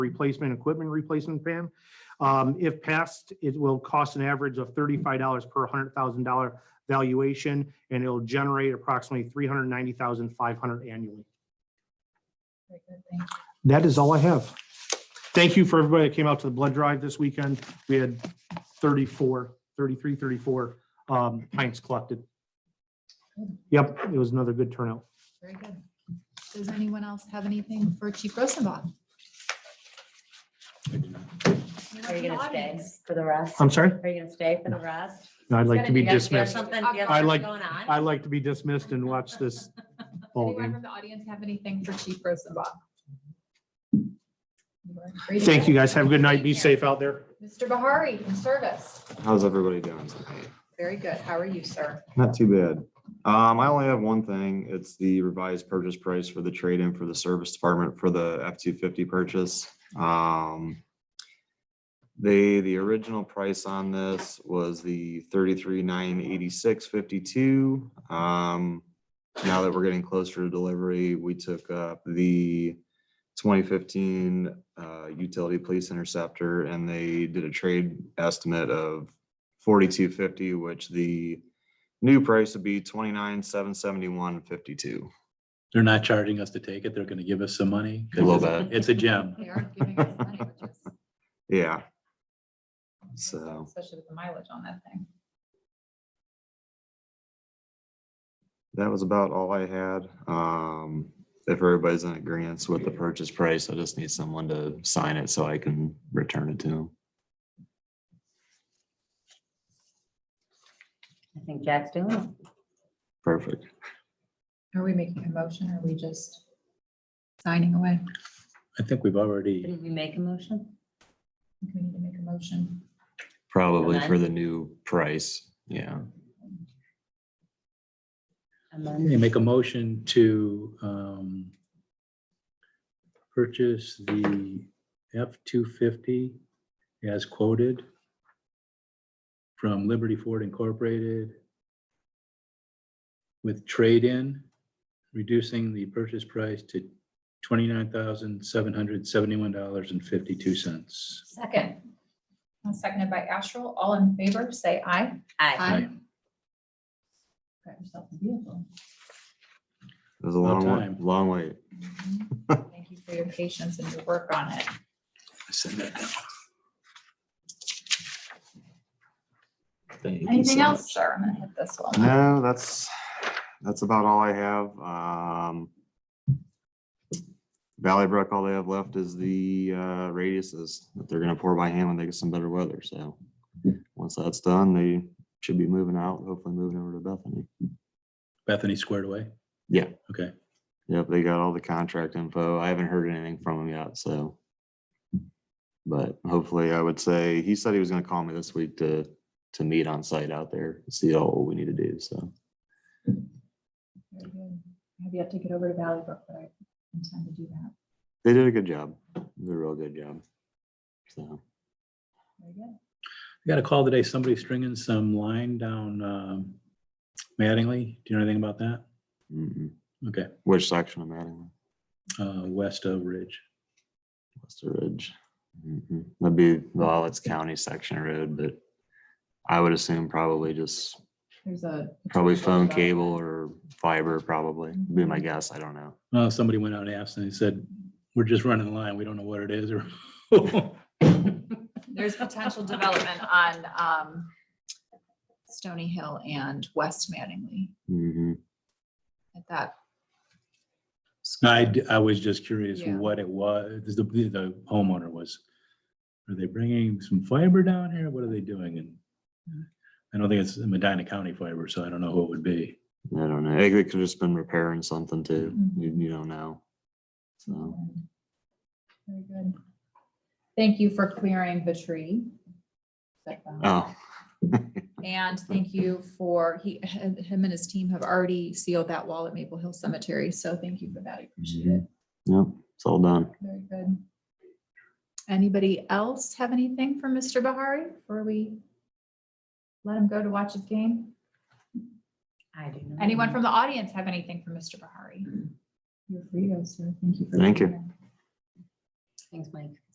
replacement, equipment replacement plan. Um, If passed, it will cost an average of thirty-five dollars per hundred thousand dollar valuation, and it'll generate approximately three hundred ninety thousand five hundred annually. Very good, thank you. That is all I have. Thank you for everybody that came out to the blood drive this weekend. We had 34, 33, 34 um, pints collected. Yep, it was another good turnout. Very good. Does anyone else have anything for Chief Rosenbaum? Are you Anyone in the gonna stay audience? for the rest? I'm sorry, Are you gonna stay for the rest? I'd like to be You guys- you have dismissed. something- you have I something like- Going on? I'd like to be dismissed and watch this ball Anyone game. from the audience have anything for Chief Rosenbaum? You are free to Thank go. you, guys. Have a good night. Be safe out there. Mr. Bahari in service. How's everybody doing tonight? Very good. How are you, sir? Not too bad. Um, I only have one thing. It's the revised purchase price for the trade-in for the service department for the F two fifty purchase. Um. They, the original price on this was the thirty-three nine eighty-six fifty-two. Um, now that we're getting closer to delivery, we took up the twenty fifteen uh utility police interceptor and they did a trade estimate of forty-two fifty, which the New price would be twenty-nine, seven seventy-one, fifty-two. They're not charging us to take it. They're gonna give us some money. 'cause A little it's- bit. It's a gem. They are giving us money, which is. Yeah, So- Especially with the mileage on that thing. that was about all I had. Um, if everybody's in agreement with the purchase price, I just need someone to sign it so I can return it to them. I think Jack's doing it. Perfect. Are we making a motion or are we just signing away? I I think we've already, Didn't we make a motion? think we need to make a motion. Probably for Amen. the new price, yeah. And then they make a motion to um, purchase the F-250 as quoted from Liberty Ford Incorporated with trade-in, reducing the purchase price to $29,771.52. Second. Seconded by Astral. All in favor, say aye. I, Aye. Got yourself a vehicle. It was a About long, wa- time. long wait. Thank you for your patience and your work on it. Send that down. Thank you Anything so else, much. sir? I'm gonna hit this one. No, that's, that's about all I have. Um. Valley Brook, all they have left is the uh radiuses that they're gonna pour by hand when they get some better weather, so. Once that's done, they should be moving out, hopefully moving over to Bethany. Bethany squared away? Yeah. Okay, Yep, they got all the contract info. I haven't heard anything from him yet, so. But hopefully, I would say, he said he was gonna call me this week to, to meet on site out there, see all what we need to do, so. Very good. I have yet to get over to Valley Brook, but I intend to do that. They did a good job. They did a real good job. So. Very good. I got a call today, somebody stringing some line down um, Mattingly. Do you know anything about that? Mm-mm. Okay, mm-hmm. Which section of Mattingly? uh, west of Ridge. Wester Ridge. Mm-mm. That'd be, well, it's county section of road, but I would assume probably just, There's a. probably phone cable or fiber probably, would be my guess. I don't know. Uh, Somebody went out and asked and they said, we're just running the line. We don't know what it is or. There's potential development on um, Stony Hill and West Mattingly Mhm. at that. I, d- I was just curious Yeah. what it was, the the homeowner was. Are they bringing some fiber down here? What are they doing? And I don't think it's Medina County fiber, so I don't know who it would be. I don't know. It could just been repairing something too. Mhm. You, you don't know. So, Very good. Thank you for clearing the tree. that boundary. oh, And thank you for, he, him and his team have already sealed that wall at Maple Hill Cemetery, so thank you for that, I appreciate it. yep, it's all done. Very good. Anybody else have anything for Mr. Bahari before we let him go to watch his game? I do. not. Anyone from the audience have anything for Mr. Bahari? You're free to go, sir. Thank you. for Thank being you. here. Thanks, Mike.